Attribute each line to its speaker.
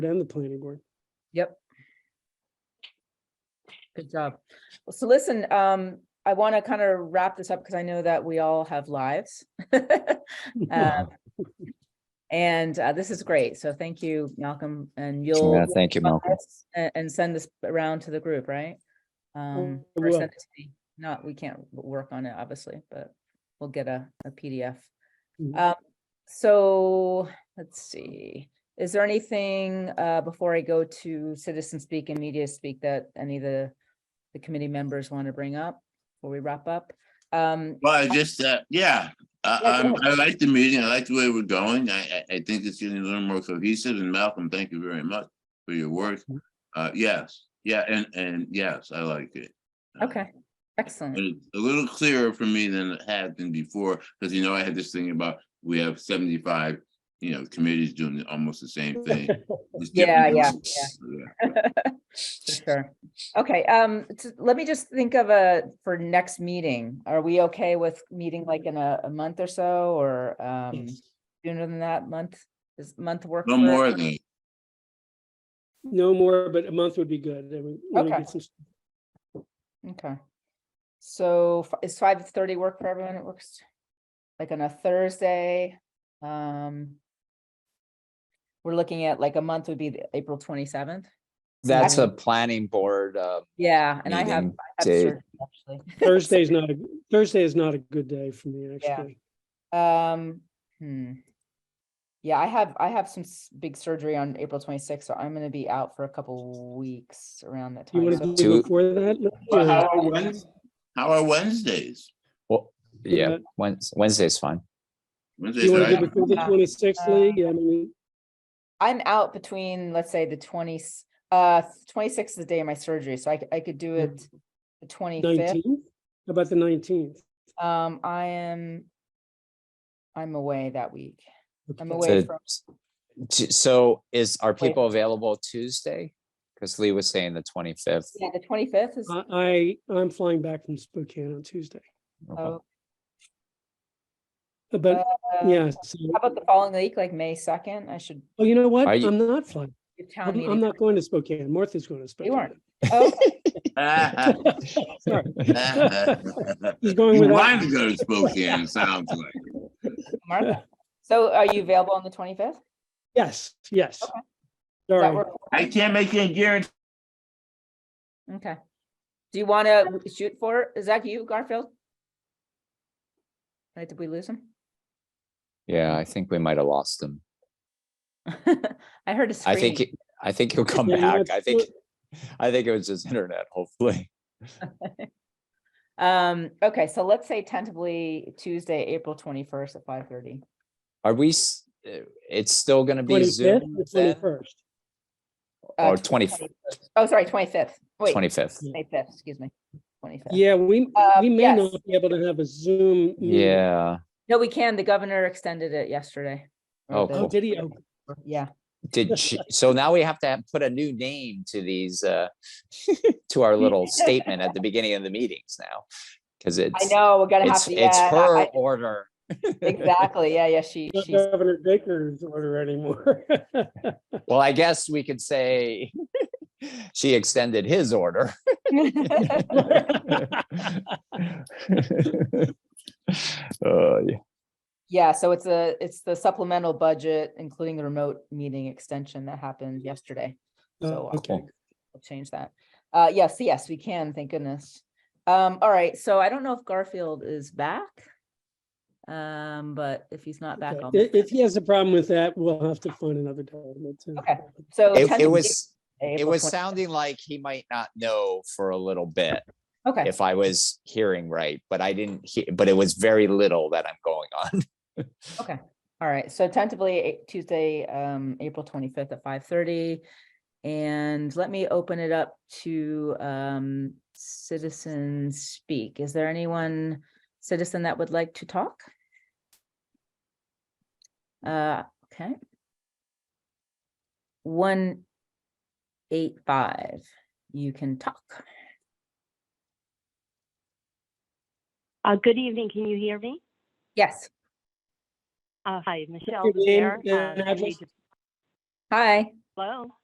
Speaker 1: and the planning board.
Speaker 2: Yep. Good job.
Speaker 3: So listen, um, I want to kind of wrap this up because I know that we all have lives. Um, And uh, this is great. So thank you, Malcolm, and you'll.
Speaker 4: Yeah, thank you, Malcolm.
Speaker 3: And, and send this around to the group, right? Um,
Speaker 1: I
Speaker 3: or
Speaker 1: will.
Speaker 3: send it to me. Not, we can't w- work on it, obviously, but we'll get a, a PDF.
Speaker 1: Mhm.
Speaker 3: Um, so, let's see, is there anything, uh, before I go to citizen speak and media speak that any of the, the committee members want to bring up before we wrap up? Um,
Speaker 5: Well, I just, uh, yeah, I,
Speaker 3: Yeah, go
Speaker 5: I'm- I like the meeting. I like the way we're going. I, I, I think it's getting a little more cohesive and Malcolm, thank you very much for your work.
Speaker 3: Mm-hmm.
Speaker 5: Uh, yes, yeah, and, and yes, I like it. Uh,
Speaker 3: okay,
Speaker 5: and
Speaker 3: excellent.
Speaker 5: it's A little clearer for me than it had been before, because you know, I had this thing about, we have seventy-five, you know, committees doing almost the same thing. It's
Speaker 3: Yeah,
Speaker 5: different.
Speaker 3: yeah,
Speaker 5: Yeah.
Speaker 3: For sure. Okay, um, t- let me just think of a, for next meeting, are we okay with meeting like in a, a month or so, or, um, sooner than that month? Is month work?
Speaker 5: No
Speaker 3: for
Speaker 5: more
Speaker 3: everyone?
Speaker 5: than,
Speaker 1: No more, but a month would be good. Then we- when we
Speaker 3: Okay.
Speaker 1: get some-
Speaker 3: Okay. So f- is five thirty work for everyone? It works like on a Thursday. Um. We're looking at like a month would be the April twenty-seventh.
Speaker 4: That's a planning board, uh,
Speaker 3: Yeah, and I have.
Speaker 4: meeting
Speaker 3: I have
Speaker 4: date.
Speaker 3: surgery, actually.
Speaker 1: Thursday's not, a Thursday is not a good day for me,
Speaker 3: Yeah.
Speaker 1: actually.
Speaker 3: Um, hmm. Yeah, I have, I have some s- big surgery on April twenty-sixth, so I'm gonna be out for a couple weeks around that
Speaker 1: You
Speaker 3: time.
Speaker 1: want
Speaker 3: So
Speaker 1: to do
Speaker 4: Two-
Speaker 1: it before that? No,
Speaker 5: Well,
Speaker 1: or-
Speaker 5: how are Wednes- how are Wednesdays?
Speaker 4: well, yeah,
Speaker 1: Yeah.
Speaker 4: Wednes- Wednesday's fine.
Speaker 5: Wednesdays
Speaker 1: You want
Speaker 5: are
Speaker 1: to do
Speaker 5: out.
Speaker 1: it before the
Speaker 3: Uh,
Speaker 1: twenty-sixth, Lee? Yeah, I mean,
Speaker 3: I'm out between, let's say, the twenty, uh, twenty-sixth is the day of my surgery, so I, c- I could do
Speaker 1: Yeah.
Speaker 3: it the
Speaker 1: Mm.
Speaker 3: twenty-fifth.
Speaker 1: nineteenth? How about the nineteenth?
Speaker 3: Um, I am, I'm away that week. I'm away
Speaker 4: So,
Speaker 3: from,
Speaker 4: t- so is, are
Speaker 3: Wait.
Speaker 4: people available Tuesday? Because Lee was saying the twenty-fifth.
Speaker 3: yeah, the twenty-fifth
Speaker 1: Uh,
Speaker 3: is,
Speaker 1: I, I- I'm flying back from Spokane on Tuesday.
Speaker 3: oh,
Speaker 1: But,
Speaker 3: uh, how
Speaker 1: yeah, so,
Speaker 3: about the following week, like May second? I should
Speaker 1: oh, you know what?
Speaker 4: Are you-
Speaker 1: I'm not flying.
Speaker 3: give town
Speaker 1: I'm I'm
Speaker 3: meeting.
Speaker 1: not going to Spokane. Martha's going to
Speaker 3: You aren't.
Speaker 1: Spokane.
Speaker 3: Oh,
Speaker 1: Sorry.
Speaker 5: You
Speaker 1: He's going without.
Speaker 5: want to go to Spokane, it sounds like.
Speaker 3: Martha. So are you available on the twenty-fifth?
Speaker 1: Yes, yes.
Speaker 3: Okay.
Speaker 1: Sorry.
Speaker 5: I can't make any guarantee.
Speaker 3: Okay. Do you want to shoot for, it? is that you, Garfield? Right, did we lose him?
Speaker 4: Yeah, I think we might have lost him.
Speaker 3: I heard a
Speaker 4: I
Speaker 3: scream.
Speaker 4: think, he- I think he'll come
Speaker 1: Yeah, you know,
Speaker 4: back.
Speaker 1: it's
Speaker 4: I think, I think it was his internet, hopefully.
Speaker 3: Um, okay, so let's say tentatively Tuesday, April twenty-first at five thirty.
Speaker 4: Are we, s- uh, it's still gonna be
Speaker 1: 25th
Speaker 4: Zoom
Speaker 1: or
Speaker 4: then?
Speaker 1: 21st?
Speaker 4: Or 20
Speaker 3: Uh, Oh, sorry, twenty-fifth. Wait,
Speaker 4: Twenty-fifth?
Speaker 3: May fifth, excuse me. Twenty-fifth.
Speaker 1: Yeah, we,
Speaker 3: Uh,
Speaker 1: we may
Speaker 3: yes.
Speaker 1: not be able to have a Zoom. meeting.
Speaker 4: Yeah,
Speaker 3: No, we can. The governor extended it yesterday. or
Speaker 4: Oh,
Speaker 3: the-
Speaker 1: Oh,
Speaker 4: cool.
Speaker 1: did he? Oh,
Speaker 3: Yeah,
Speaker 4: did, she- so now we have to have- put a new name to these, uh, to our little statement at the beginning of the meetings now. Cause
Speaker 3: I
Speaker 4: it's,
Speaker 3: know, we're gonna have
Speaker 4: it's,
Speaker 3: to.
Speaker 4: it's
Speaker 3: yeah,
Speaker 4: her
Speaker 3: I-
Speaker 4: order.
Speaker 3: Exactly, yeah, yeah, she,
Speaker 1: Not
Speaker 3: she's
Speaker 1: Governor Baker's order anymore.
Speaker 4: Well, I guess we could say she extended his order. Uh, yeah.
Speaker 3: Yeah, so it's a, it's the supplemental budget, including the remote meeting extension that happened yesterday. So
Speaker 1: Oh,
Speaker 3: I'll
Speaker 1: Okay.
Speaker 3: I'll change that. Uh, yes, yes, we can, thank goodness. Um, all right, so I don't know if Garfield is back. Um, but if he's not back,
Speaker 1: Okay.
Speaker 3: I'll.
Speaker 1: If, if he has a problem with that, we'll have to find another time. That's it.
Speaker 3: Okay. So.
Speaker 4: It, it
Speaker 3: tentatively
Speaker 4: was, it
Speaker 3: April
Speaker 4: was
Speaker 3: 20
Speaker 4: sounding like he might not know for a little bit
Speaker 3: Okay,
Speaker 4: if I was hearing right, but I didn't hear, but it was very little that I'm going on.
Speaker 3: all right, so tentatively eh, Tuesday, um, April twenty-fifth at five thirty. And let me open it up to, um, citizens speak. Is there anyone citizen that would like to talk? Uh, okay. One eight five, you can talk.
Speaker 6: Uh, good evening. Can you hear me?
Speaker 3: Yes,
Speaker 6: Uh, hi, Michelle.
Speaker 1: Your name
Speaker 6: Lemaire,
Speaker 1: and
Speaker 6: um, I
Speaker 1: address?
Speaker 6: need to
Speaker 3: hi,
Speaker 6: Hello?